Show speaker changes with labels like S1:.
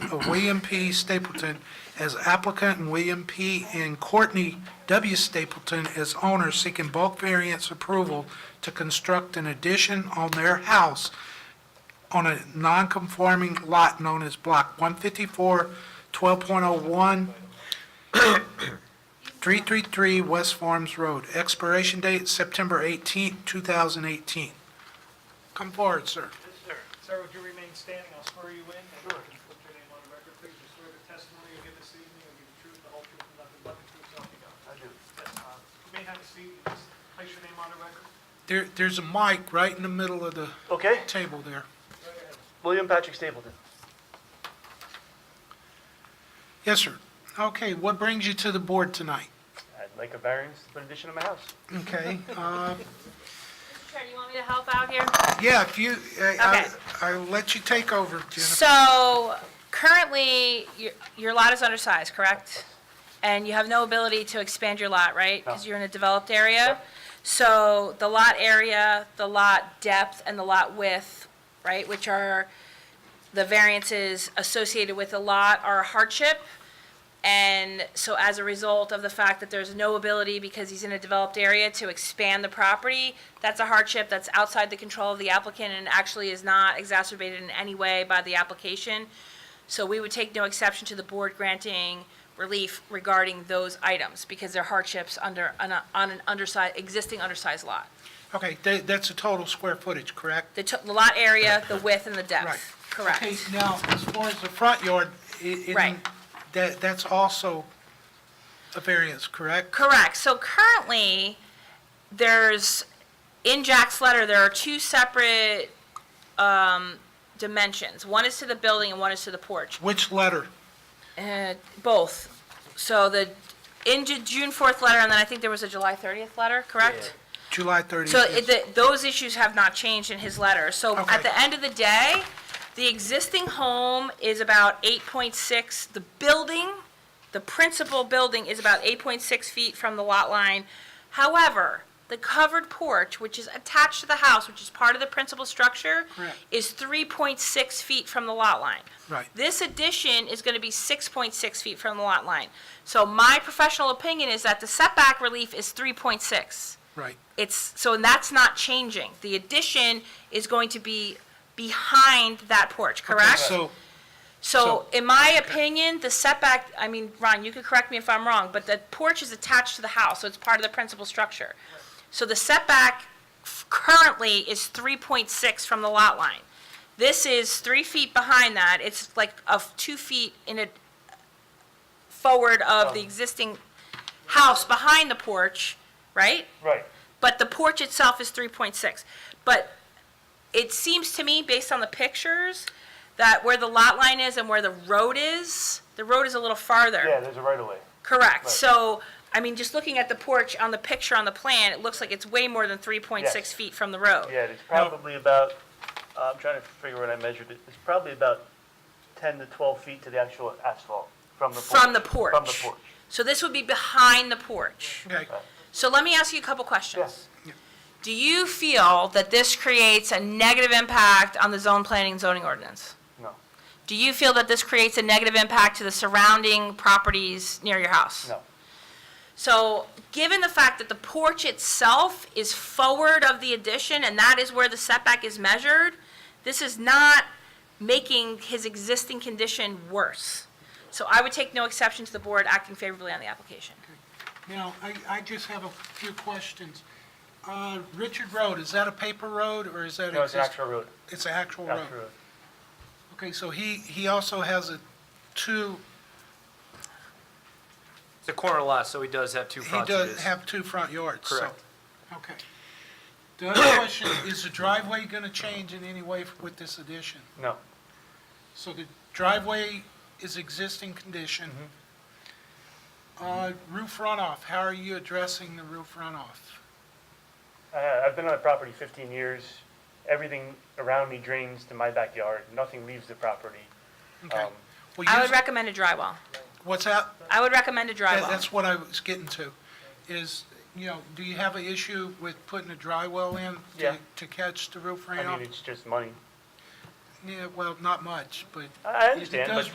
S1: name of William P. Stapleton as applicant and William P. and Courtney W. Stapleton as owner seeking bulk variance approval to construct an addition on their house on a non-conforming lot known as Block 154, 12.01, 333 West Farms Road. Expiration date September 18, 2018. Come forward, sir.
S2: Yes, sir. Sir, would you remain standing? I'll swear you in. Sure. Put your name on the record, please. You swear the testimony you give this evening will be the truth, the whole truth, and nothing but the truth, so help you God. I do. Yes, uh, you may have a seat. Just place your name on the record.
S1: There, there's a mic right in the middle of the
S3: Okay,
S1: table there.
S3: William Patrick Stapleton.
S1: Yes, sir. Okay, what brings you to the board tonight?
S3: I'd like a variance to put an addition on my house.
S1: Okay, uh,
S4: Mr. Chair, do you want me to help out here?
S1: yeah, if you, uh, I- I-
S4: Okay.
S1: I'll let you take over, Jennifer.
S4: So currently, your- your lot is undersized, correct? And you have no ability to expand your lot, right? Because you're in a developed area? So the lot area, the lot depth, and the lot width, right, which are the variances associated with the lot are a hardship. And so as a result of the fact that there's no ability, because he's in a developed area, to expand the property, that's a hardship that's outside the control of the applicant and actually is not exacerbated in any way by the application. So we would take no exception to the board granting relief regarding those items, because they're hardships under, on a- on an undersized, existing undersized lot.
S1: Okay, tha- that's the total square footage, correct?
S4: The to- the lot area, the width, and the
S1: Right.
S4: depth, correct?
S1: Okay, now, as far as the front yard, i- in-
S4: Right.
S1: that, that's also a variance, correct?
S4: Correct. So currently, there's, in Jack's letter, there are two separate um, dimensions. One is to the building and one is to the porch,
S1: Which letter?
S4: Uh, both. So the, in Ju- June 4th letter, and then I think there was a July 30th letter, correct?
S1: July 30th?
S4: So it- the- those issues have not changed in his letter. So
S1: Okay.
S4: at the end of the day, the existing home is about 8.6, the building, the principal building is about 8.6 feet from the lot line. However, the covered porch, which is attached to the house, which is part of the principal structure,
S1: Correct.
S4: is 3.6 feet from the lot line.
S1: Right.
S4: This addition is going to be 6.6 feet from the lot line. So my professional opinion is that the setback relief is 3.6.
S1: Right,
S4: It's, so that's not changing. The addition is going to be behind that porch, correct?
S1: so,
S4: So in my opinion, the setback, I mean, Ron, you could correct me if I'm wrong, but the porch is attached to the house, so it's part of the principal structure. So the setback f- currently is 3.6 from the lot line. This is three feet behind that. It's like of two feet in a, forward of the existing house behind the porch, right?
S3: Right.
S4: But the porch itself is three point six. But it seems to me, based on the pictures, that where the lot line is and where the road is, the road is a little farther.
S3: Yeah, there's a right of way.
S4: Correct.
S3: Right.
S4: So, I mean, just looking at the porch on the picture on the plan, it looks like it's way more than three point six
S3: Yes.
S4: feet from the road.
S3: Yeah, it's probably about, uh, I'm trying to figure what I measured it. It's probably about 10 to 12 feet to the actual asphalt from the porch.
S4: From the
S3: From the
S4: porch.
S3: porch.
S4: So this would be behind the porch.
S1: okay,
S4: So let me ask you a couple questions.
S3: Yes.
S4: Do you feel that this creates a negative impact on the zone planning and zoning ordinance?
S3: No,
S4: Do you feel that this creates a negative impact to the surrounding properties near your house?
S3: no.
S4: So, given the fact that the porch itself is forward of the addition, and that is where the setback is measured, this is not making his existing condition worse. So I would take no exception to the board acting favorably on the application.
S1: now, I, I just have a few questions. Uh, Richard Road, is that a paper road, or is that?
S3: No, it's an
S1: exist-
S3: actual road.
S1: It's an actual road?
S3: Actual road.
S1: Okay, so he, he also has a two,
S5: It's a corner lot, so he does have two
S1: he
S5: frontages.
S1: does have two front yards, so.
S5: Correct.
S1: Okay. The other question, is the driveway going to change in any way with this addition?
S3: No,
S1: So the driveway is existing condition.
S3: Mm-hmm.
S1: Uh, Roof runoff, how are you addressing the roof runoff?
S3: I- uh, I've been on the property 15 years. Everything around me drains to my backyard. Nothing leaves the property.
S1: Okay.
S3: Um,
S1: Well,
S4: I
S1: you-
S4: would recommend a drywall.
S1: What's that?
S4: I would recommend a
S1: That-
S4: drywall.
S1: That's what I was getting to, is, you know, do you have an issue with putting a dry well in to-
S3: Yeah.
S1: to catch the roof
S3: I mean,
S1: runoff?
S3: it's just money.
S1: Yeah, well, not much, but
S3: I I
S1: it
S4: Oh,
S3: understand,
S1: does
S3: but